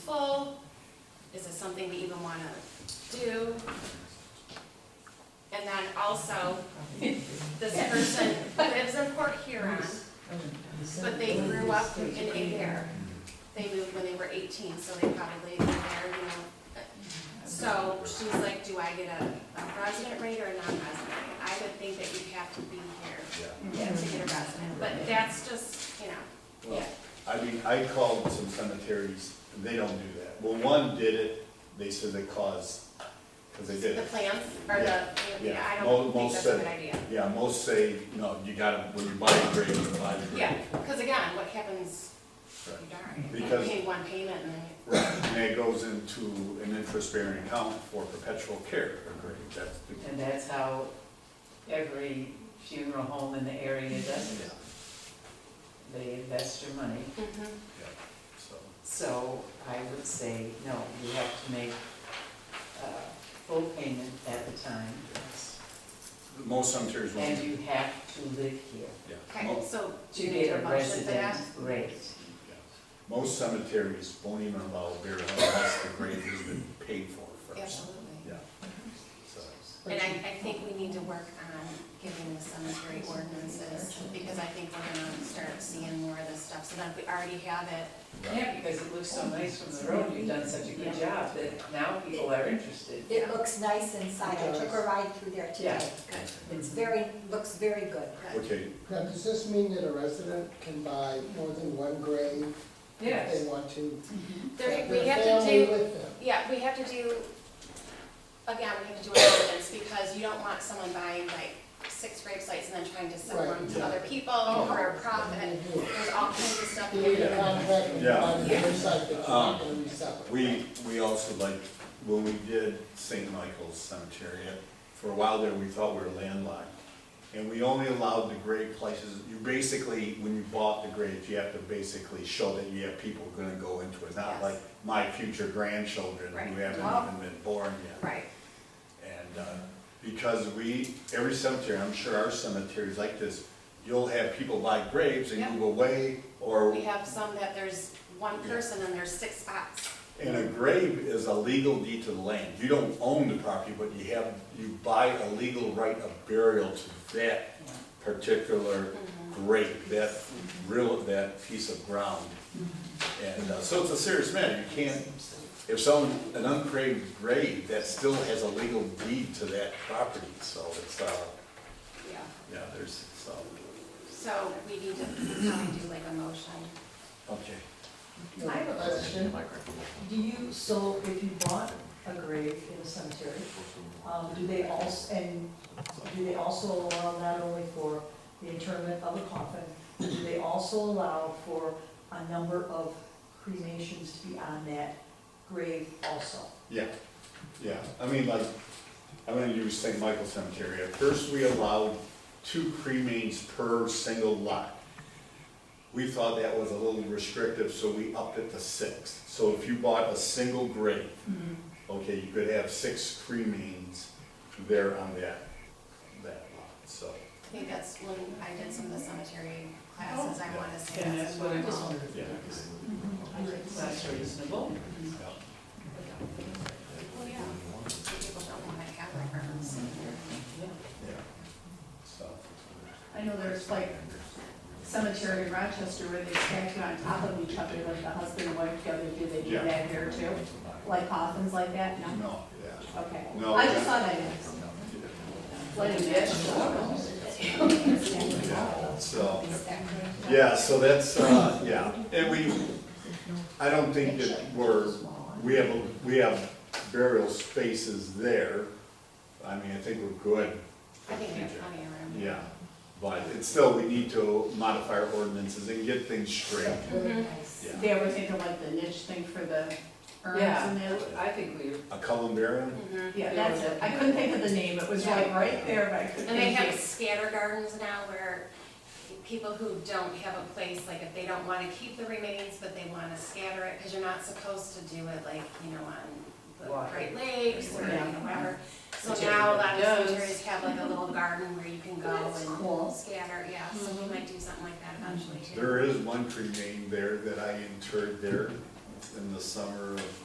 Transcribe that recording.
is this something we even want to do? And then also, this person lives in Port Huron, but they grew up in Adair. They moved when they were eighteen, so they probably live there, you know. So she's like, do I get a, a resident rate or a non-resident? rate? I would think that you'd have to be here Yeah. to get a resident, but that's just, you know, yeah. Well, I mean, I called some cemeteries, and they don't do that. Well, one did it, they said they caused, because they did The it. plans, or the, Yeah, yeah, I Mo- don't think most that's a said- good idea. Yeah, most say, no, you gotta, when you buy a grave, you buy the grave. Yeah, because again, what happens, you Right. die, you Because- pay one payment and then you. Right, and it goes into an interest-bearing account for perpetual care of grave, that's the. And that's how every funeral home in the area does it. They invest your money. Mm-hmm. So, So I would say, no, you have to make uh, full payment at the time. Most cemeteries won't, And you have to live here yeah. Okay, Mo- so do to you need get a a motion for resident that? rate. yeah. Most cemeteries won't even allow burial unless the grave has been paid for first. Absolutely. Yeah. So, And I, I think we need to work on giving the cemetery ordinances, because I think we're gonna start seeing more of this stuff, so then if we already have it. right. Yeah, because it looks so nice from the road, you've done such a good job that now people are interested. It looks nice inside, I took a Doors. ride through there today. It's very, looks very good. Okay, Now, does this mean that a resident can buy more than one grave if Yes, they want to? Mm-hmm. There, have we their have to family do, with them? yeah, we have to do, again, we have to do an ordinance, because you don't want someone buying like six grave sites and then trying to sell Right. them to Yeah. other people for a profit. What do you do? There's all kinds of stuff. You need a contract and Yeah. buy the grave site, but you're Um, not gonna resell it. We, we also like, when we did St. Michael's Cemetery, uh, for a while there, we thought we were landlocked. And we only allowed the grave places, you basically, when you bought the graves, you have to basically show that you have people gonna go into it. Not Yes. like my future grandchildren Right. who haven't Well- even been born yet. Right, And, uh, because we, every cemetery, I'm sure our cemeteries like this, you'll have people buy graves and Yeah. move away, or we have some that there's one person and there's six spots. And a grave is a legal deed to the land. You don't own the property, but you have, you buy a legal right of burial to that particular grave, that real, that piece of ground. And uh, so it's a serious matter. You can't, if someone, an uncraved grave, that still has a legal deed to that property. So it's, uh, Yeah, yeah, there's, so, so we need to probably do like a motion. okay. No question. Do you, so if you bought a grave in a cemetery, um, do they also, and do they also allow not only for the interment of a coffin, but do they also allow for a number of cremations to be on that grave also? Yeah, yeah, I mean, like, I'm gonna use St. Michael Cemetery, at first we allowed two cremains per single lot. We thought that was a little restrictive, so we upped it to six, so if you bought a single grave, okay, you could have six cremains there on that, that lot, so. I think that's when I did some of the cemetery classes, I wanna say and that's that's what I just involved. wondered. Yeah. That's reasonable. Well, Oh, yeah, Some people don't wanna have reference. Yeah, so. I know there's like cemetery in Rochester where they stack you on top of each other, like the husband and wife together, do they do Yeah. that here too? Like coffins like that, no? No, yeah, Okay. No. I just thought I'd ask. no, Like a dish? yeah, so. Yeah, so that's, uh, yeah, and we, I don't think that we're, we have, we have burial spaces there. I mean, I think we're good, I think we have plenty of room. yeah, but it's still, we need to modify our ordinances and get things straight. Yeah. They were thinking like the niche thing for the urns Yeah, and that? I think we, A columbarium? Mhm. Yeah, that's it. I couldn't think of the name. It was like right there, but I couldn't. And they think have of it. scatter gardens now where people who don't have a place, like if they don't wanna keep the remains, but they wanna scatter it, cause you're not supposed to do it like, you know, on the Water. Great Lakes or you know, Yeah. whatever. So Which now a lot of everybody does. cemeteries have like a little garden where you can go That's and cool. Mm-hmm. scatter, yeah, so we might do something like that eventually too. There is one cremain there that I interred there in the summer of